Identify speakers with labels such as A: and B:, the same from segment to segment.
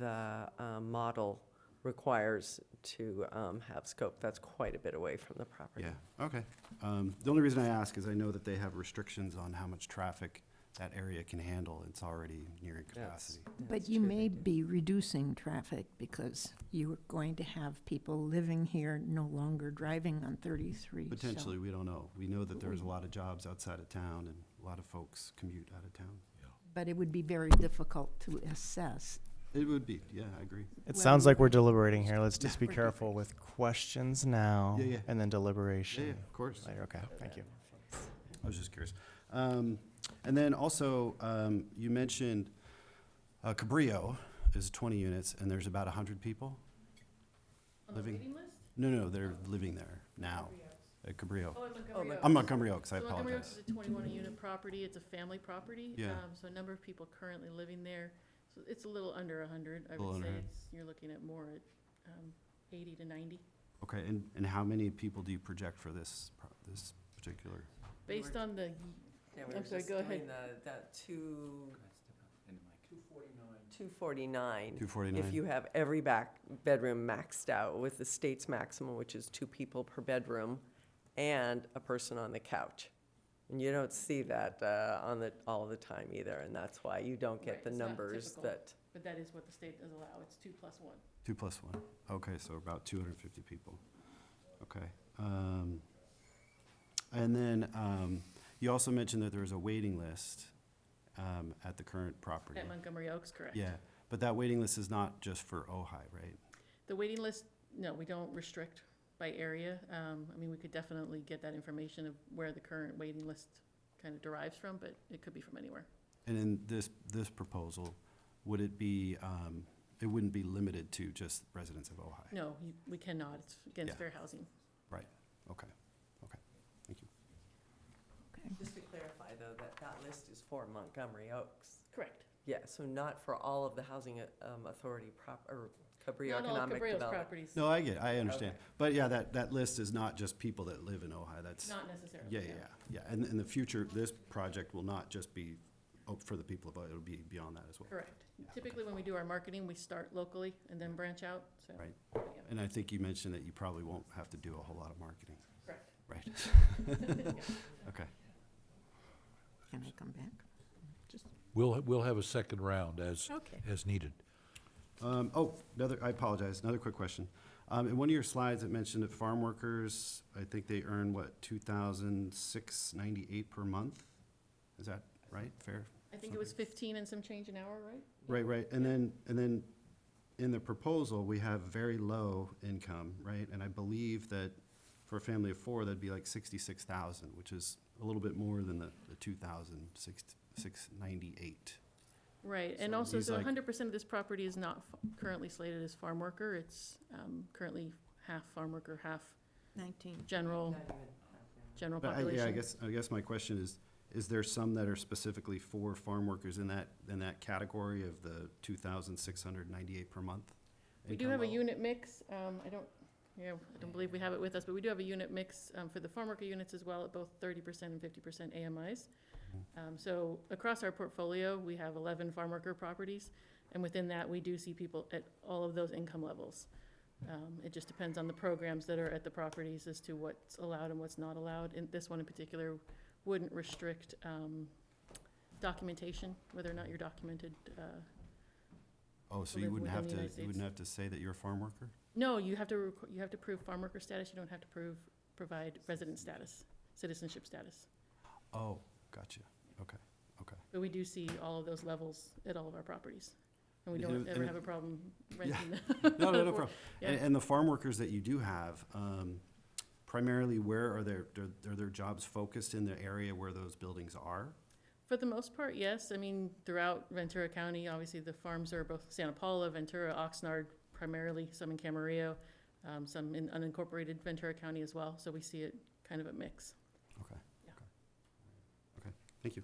A: the um, model requires to um, have scope. That's quite a bit away from the property.
B: Yeah, okay. Um, The only reason I ask is I know that they have restrictions on how much traffic that area can handle. It's already nearing
A: That's-
B: capacity.
A: that's
C: But you
A: true, they
C: may
A: do.
C: be reducing traffic because you are going to have people living here no longer driving on 33. so-
B: Potentially, we don't know. We know that there's a lot of jobs outside of town and a lot of folks commute out of town.
C: But it would be very difficult to assess.
B: It would be, yeah, I agree.
D: It
C: Well-
D: sounds like we're deliberating here. Let's just be
C: We're
D: careful with questions now
B: Yeah, yeah.
D: and then
B: Yeah, yeah,
D: deliberation
B: of course.
D: later. Okay, thank you.
B: I was just curious. Um, And then also, um, you mentioned uh, Cabrillo is 20 units and there's about 100 people? living No, no, they're living there now, at Cabrillo.
E: Oh, in Montgomery Oaks.
B: I'm Montgomery Oaks, I
E: So Montgomery Oaks
B: apologize.
E: is a twenty-one unit property, it's a family property.
B: Yeah.
E: um, So a number of people currently living there, so it's a little under a hundred, I
B: Little
E: would say,
B: under 100.
E: it's, you're looking at more at, um, eighty to ninety.
B: Okay, and, and how many people do you project for this, pro- this particular?
A: We
E: Based
A: were-
E: on the,
A: Yeah, we
E: I'm
A: were
E: sorry,
A: just
E: go
A: doing the, that two. Two forty-nine.
B: 249?
A: If you have every back, bedroom maxed out with the state's maximum, which is two people per bedroom and a person on the couch. And you don't see that, uh, on the, all the time either, and that's why you don't
E: Right,
A: get the
E: it's not
A: numbers
E: typical.
A: that,
E: but that is what the state does allow, it's two plus one.
B: Two plus one. Okay, so about 250 people. Okay. um, And then um, you also mentioned that there is a waiting list um, at the current property.
E: At Montgomery Oaks, correct?
B: Yeah, but that waiting list is not just for Ojai, right?
E: The waiting list, no, we don't restrict by area. Um, I mean, we could definitely get that information of where the current waiting list kind of derives from, but it could be from anywhere.
B: And in this, this proposal, would it be, um, it wouldn't be limited to just residents of Ojai?
E: No, you- we cannot, it's against
B: Yeah.
E: fair housing.
B: Okay, okay, thank you.
A: just to clarify though, that that list is for Montgomery Oaks.
E: Correct.
A: Yeah, so not for all of the housing, uh, um, authority prop, or Cabrillo
E: Not all of
A: Economic
E: Cabrillo's
A: Development.
E: properties,
B: No, I get, I understand.
A: Okay.
B: But yeah, that, that list is not just people that live in Ojai, that's,
E: not necessarily.
B: yeah, yeah, yeah. yeah. And in the future, this project will not just be oh, for the people of Ojai, it'll be beyond that as well.
E: Correct. Typically, when we do our marketing, we start locally and then branch out, so.
B: Right.
E: yeah,
B: And I think you mentioned that you probably won't have to do a whole lot of marketing,
E: Correct.
B: right? Okay,
C: Can I come back? Just
F: We'll, we'll have a second round as,
C: Okay.
F: as needed.
B: um, oh, another, I apologize, another quick question. Um, in one of your slides, it mentioned that farm workers, I think they earn, what, two thousand six ninety-eight per month? Is that right, fair?
E: I think it was fifteen and some change an hour, right?
B: Right, right, and then, and then in the proposal, we have very low income, right? And I believe that for a family of four, that'd be like sixty-six thousand, which is a little bit more than the, the two thousand six, six ninety-eight.
E: Right, and
B: So
E: also,
B: he's
E: so
B: like-
E: hundred percent of this property is not f- currently slated as farm worker. It's um, currently half farm worker, half
C: 19.
E: general,
A: Not even-
E: general
B: But I,
E: population.
B: yeah, I guess, I guess my question is, is there some that are specifically for farm workers in that, in that category of the two thousand six hundred ninety-eight per month?
E: We do
B: income
E: have a
B: level?
E: unit mix, um, I don't, yeah, I don't believe we have it with us, but we do have a unit mix, um, for the farm worker units as well, at both thirty percent and fifty percent AMIs. Um, so across our portfolio, we have eleven farm worker properties, and within that, we do see people at all of those income levels. Um, it just depends on the programs that are at the properties as to what's allowed and what's not allowed, and this one in particular wouldn't restrict, um, documentation, whether or not you're documented, uh,
B: Oh, so
E: to
B: you
E: live
B: wouldn't have
E: within the
B: to,
E: United
B: you wouldn't have to say that you're a farm worker?
E: No, you have to, requ- you have to prove farm worker status, you don't have to prove, provide resident status, citizenship status.
B: Oh, gotcha, okay, okay.
E: But we do see all of those levels at all of our properties. And we
B: And
E: don't
B: it-
E: ever
B: and it-
E: have a problem renting them.
B: No, no, no
E: Or-
B: problem.
E: yeah.
B: And, and the farm workers that you do have, um, primarily where are their, their- are their jobs focused in the area where those buildings are?
E: For the most part, yes. I mean, throughout Ventura County, obviously, the farms are both Santa Paula, Ventura, Oxnard primarily, some in Camarillo, um, some in unincorporated Ventura County as well, so we see it kind of a mix.
B: Okay.
E: Yeah.
B: okay. Okay, thank you.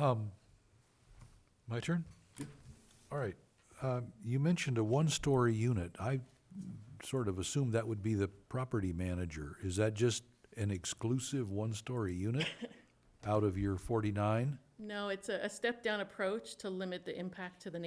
F: Um, My turn? All right. Um, You mentioned a one-story unit. I sort of assumed that would be the property manager. Is that just an exclusive one-story unit? out of your 49?
E: No, it's a, a step-down approach to limit the impact to the neighborhood